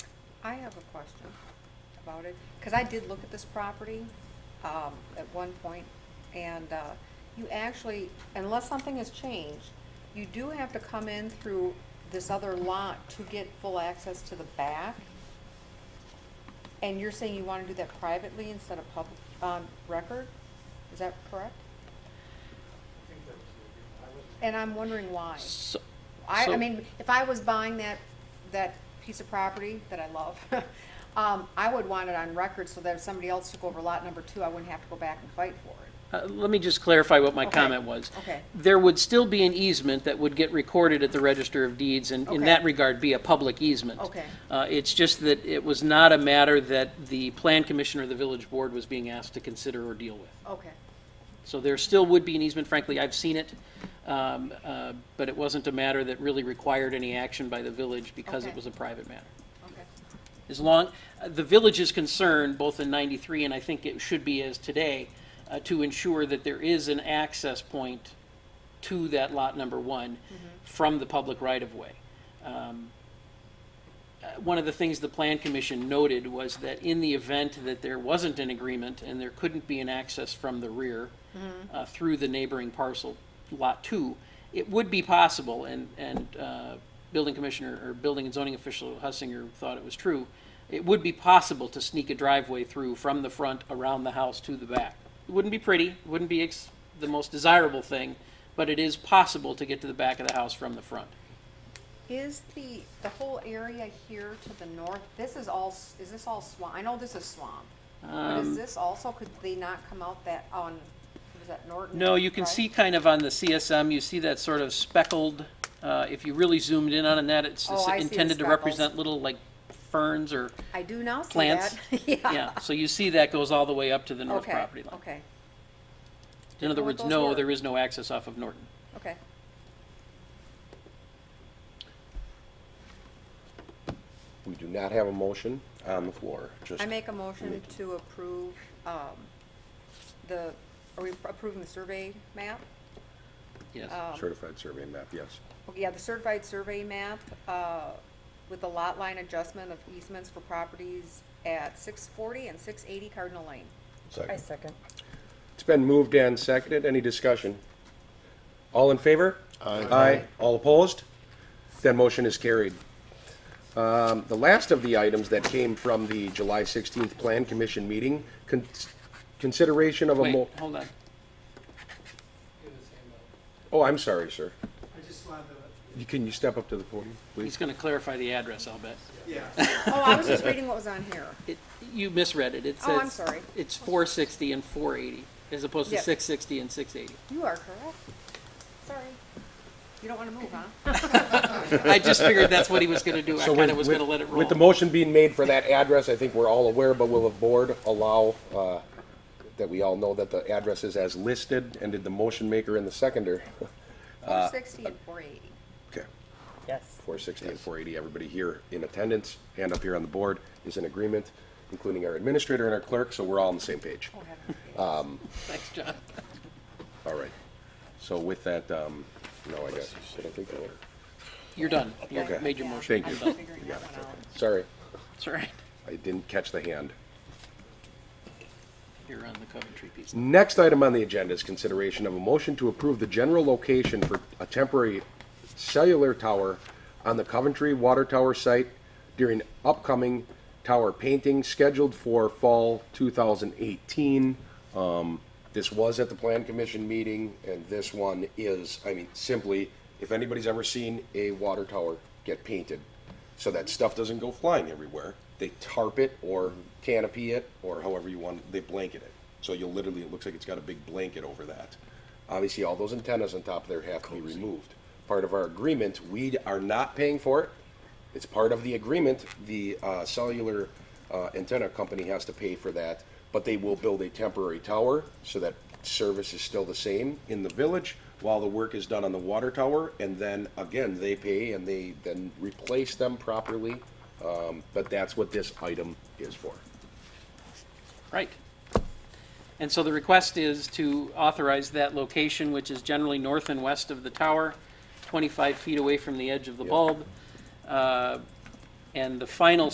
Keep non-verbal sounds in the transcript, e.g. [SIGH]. I have a question about it, because I did look at this property um, at one point, and uh, you actually, unless something has changed, you do have to come in through this other lot to get full access to the back. And you're saying you want to do that privately instead of public, on record? Is that correct? And I'm wondering why. So, I, I So- mean, if I was buying that, that piece of property that I love, [LAUGHS] um, I would want it on record so that if somebody else took over lot number two, I wouldn't have to go back and fight for it. uh, let me just clarify what my Okay. comment was. Okay. There would still be an easement that would get recorded at the Register of Deeds, and in Okay. that regard, be a public easement. Okay. Uh, It's just that it was not a matter that the Plan Commission or the Village Board was being asked to consider or deal with. Okay. So there still would be an easement, frankly, I've seen it, um, uh, but it wasn't a matter that really required any action by the village because it Okay. was a private matter. Okay. As long, uh, the village is concerned, both in 93 and I think it should be as today, uh, to ensure that there is an access point to that lot number one from the public right-of-way. Um, uh, One of the things the Plan Commission noted was that in the event that there wasn't an agreement and there couldn't be an access from the rear uh, through the neighboring parcel, Lot 2, it would be possible, and, and uh, Building Commissioner, or Building and Zoning Official Hussinger thought it was true, it would be possible to sneak a driveway through from the front, around the house, to the back. It wouldn't be pretty, it wouldn't be ex- the most desirable thing, but it is possible to get to the back of the house from the front. Is the, the whole area here to the north, this is all, s- is this all swamp? I know this is swamp. But is Um, this also, could they not come out that, on, was that Norton? No, you can Drive? see kind of on the CSM, you see that sort of speckled, uh, if you really zoomed in on that, it's Oh, it's I see the intended to speckles. represent little like ferns or, I do now see that. [LAUGHS] Plants. Yeah. yeah, so you see that goes all the way up to the north Okay. property line. Okay, In other Well, words, those no, were- there is no access off of Norton. okay. We do not have a motion on the floor, just. I make a motion Make- to approve, um, the, are we approving the survey map? Yes. Um, Certified survey map, yes. okay, Yeah, the certified survey map, uh, with the lot line adjustment of easements for properties at six forty and six eighty Cardinal Lane. I second. It's been moved and seconded. Any discussion? All in favor? Aye. Aye. All opposed? That motion is carried. Um, The last of the items that came from the July 16th Plan Commission meeting, con- consideration of a Wait, mo- hold on. oh, I'm sorry, sir. I just wanted to, You- Can you step up to the podium, He's please? going to clarify the address, I'll bet. yeah, Oh, I was just reading what was on here. It- You misread it. It says. Oh, I'm sorry. It's 460 and 480, as opposed to Yep. 660 and 680. You are correct. Sorry. You don't wanna move, huh? I just figured that's what he was going to do. I So kind with- of was with- going to let it roll. With the motion being made for that address, I think we're all aware, but will the board allow uh, that we all know that the address is as listed, and did the motion maker and the seconder? [LAUGHS] Four sixty and four eighty. Okay. Yes. 460 and 480, everybody here in attendance and up here on the board is in agreement, including our administrator and our clerk, so we're all on the same page. Oh, heaven. Thanks, John. All right. So with that, um, no, I guess, did I think of it? You're done. You Okay. made your Yeah, motion. Thank you. I'm still figuring that one out. Sorry, It's all right. I didn't catch the hand. You're on the Coventry piece. Next item on the agenda is consideration of a motion to approve the general location for a temporary cellular tower on the Coventry Water Tower site during upcoming tower painting scheduled for fall 2018. Um, This was at the Plan Commission meeting, and this one is, I mean, simply, if anybody's ever seen a water tower get painted, so that stuff doesn't go flying everywhere. They tarp it or canopy it or however you want, they blanket it. So you'll literally, it looks like it's got a big blanket over that. Obviously, all those antennas on top there have to be removed. Part of our agreement, we are not paying for it. It's part of the agreement, the uh, cellular uh, antenna company has to pay for that, but they will build a temporary tower so that service is still the same in the village while the work is done on the water tower, and then again, they pay and they then replace them properly. Um, But that's what this item is for. Right. And so the request is to authorize that location, which is generally north and west of the tower, 25 feet away from the edge of the bulb. Uh, And the final